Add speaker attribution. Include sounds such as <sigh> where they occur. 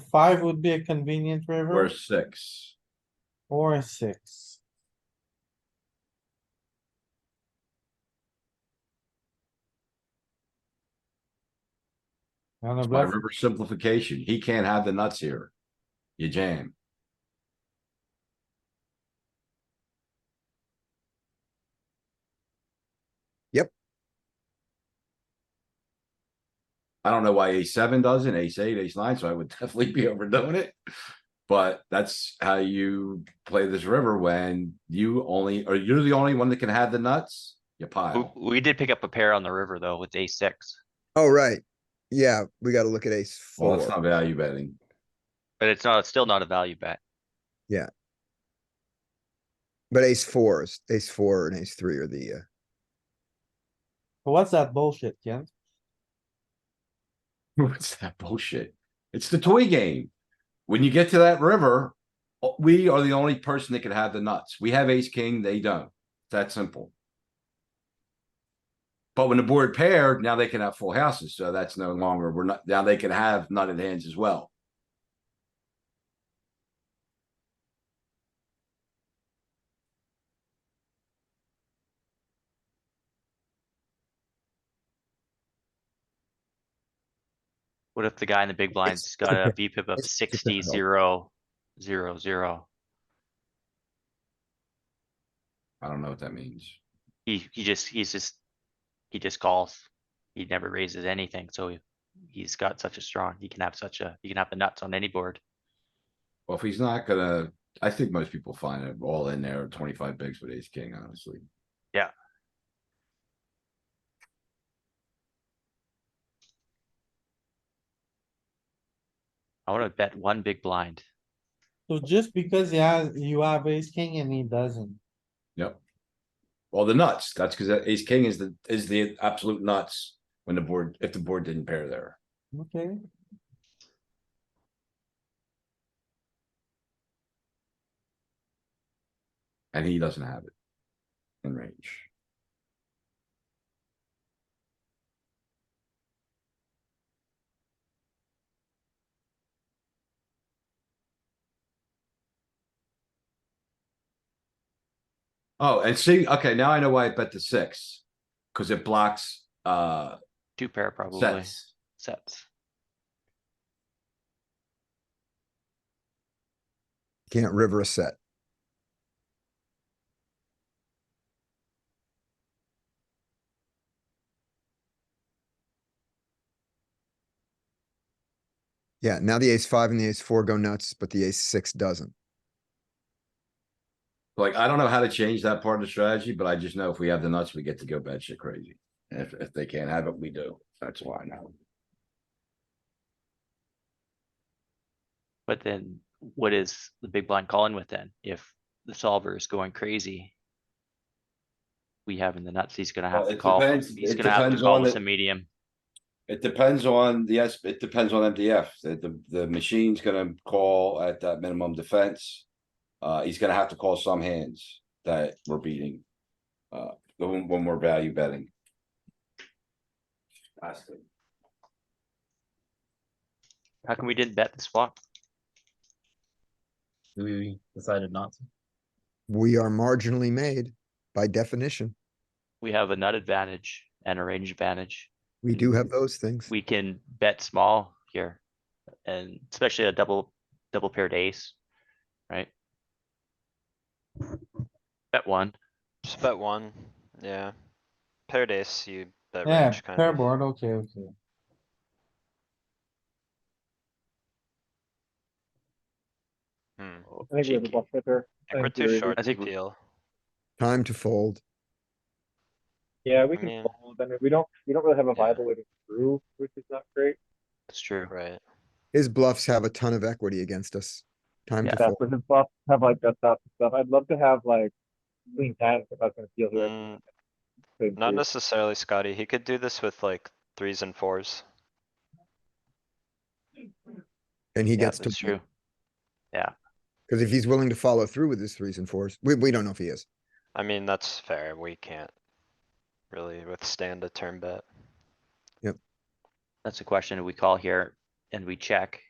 Speaker 1: five would be a convenient
Speaker 2: We're
Speaker 1: river
Speaker 2: six.
Speaker 1: or a six. On a
Speaker 2: It's my
Speaker 1: bluff,
Speaker 2: river simplification. He can't have the nuts here. You jam.
Speaker 3: Yep.
Speaker 2: I don't know why ace seven doesn't, ace eight, ace nine, so I would <laughs> definitely be overdoing it. But that's how you play this river when you only, or you're the only one that can have the nuts, you
Speaker 4: W-
Speaker 2: pile.
Speaker 4: We did pick up a pair on the river though with ace six,
Speaker 3: Oh, right. Yeah, we gotta look at ace
Speaker 2: Well, that's not
Speaker 3: four.
Speaker 2: value betting.
Speaker 4: but it's not, it's still not a value bet.
Speaker 3: But ace four is, ace four and ace three are the, uh,
Speaker 1: what's that bullshit, Ken?
Speaker 2: <laughs> What's that bullshit? It's the toy game. When you get to that river, uh, we are the only person that can have the nuts. We have ace king, they don't. It's that simple. But when the board paired, now they can have full houses, so that's no longer, we're not, now they can have nutted hands as well.
Speaker 4: What if the guy in the big blind's got a VPIP of
Speaker 3: it's
Speaker 4: sixty,
Speaker 3: difficult.
Speaker 4: zero, zero, zero?
Speaker 2: I don't know what that means.
Speaker 4: He, he just, he's just, he just calls. He never raises anything, so he- he's got such a strong, he can have such a, he can have the nuts on any board.
Speaker 2: Well, if he's not gonna, I think most people find it all in there, twenty-five bigs with ace king, honestly.
Speaker 4: Yeah. I wanna bet one big blind.
Speaker 1: So just because he has, you have ace king and he doesn't,
Speaker 2: Yep. Well, the nuts, that's because ace king is the, is the absolute nuts when the board, if the board didn't pair there.
Speaker 1: okay?
Speaker 2: And he doesn't have it. In range. Oh, and see, okay, now I know why I bet the six. Cause it blocks, uh,
Speaker 4: Two pair probably,
Speaker 2: sets.
Speaker 4: sets.
Speaker 3: can't river a set. Yeah, now the ace five and the ace four go nuts, but the ace six doesn't.
Speaker 2: Like, I don't know how to change that part of the strategy, but I just know if we have the nuts, we get to go bad shit crazy. And If, if they can't have it, we do. That's why now.
Speaker 4: But then what is the big blind calling with then? If the solver is going crazy. We having the nuts, he's gonna
Speaker 2: Well,
Speaker 4: have to
Speaker 2: it
Speaker 4: call,
Speaker 2: depends-
Speaker 4: he's
Speaker 2: it
Speaker 4: gonna have to
Speaker 2: depends
Speaker 4: call
Speaker 2: on
Speaker 4: with
Speaker 2: the-
Speaker 4: a medium.
Speaker 2: It depends on the, S- it depends on MDF. The, the, the machine's gonna call at that minimum defense. Uh, he's gonna have to call some hands that we're beating. Uh, when, when we're value betting.
Speaker 4: How come we didn't bet this flop?
Speaker 5: We decided not to.
Speaker 3: We are marginally made by definition.
Speaker 4: We have a nut advantage and a range advantage.
Speaker 3: We do have those things.
Speaker 4: We can bet small here. And especially a double, double paired ace, right? Bet one,
Speaker 6: Just bet one, yeah. Paired ace, you bet
Speaker 1: Yeah,
Speaker 6: range kind
Speaker 1: pair
Speaker 6: of.
Speaker 1: board, okay, okay.
Speaker 6: Hmm,
Speaker 7: I think we have a
Speaker 6: cheeky.
Speaker 7: bluff pepper.
Speaker 6: I think we're too short
Speaker 4: I
Speaker 6: to
Speaker 4: think we-
Speaker 6: deal.
Speaker 3: Time to fold.
Speaker 7: Yeah, we
Speaker 6: I
Speaker 7: can
Speaker 6: mean-
Speaker 7: fold. I mean, we don't, we don't really have a
Speaker 6: Yeah.
Speaker 7: viable way to through, which is not great.
Speaker 4: it's true.
Speaker 6: Right,
Speaker 3: His bluffs have a ton of equity against us. Time
Speaker 4: Yeah.
Speaker 3: to
Speaker 7: That's
Speaker 3: fold.
Speaker 7: with his bluff, have like that stuff and stuff. I'd love to have like lean hands if I was gonna deal here.
Speaker 6: Mm, not necessarily Scotty, he could do this with like threes and fours.
Speaker 3: And he
Speaker 4: Yeah,
Speaker 3: gets to,
Speaker 4: that's true.
Speaker 3: because if he's willing to follow through with his threes and fours, we, we don't know if he is.
Speaker 6: I mean, that's fair, we can't really withstand a turn bet.
Speaker 4: That's the question. Do we call here and we check?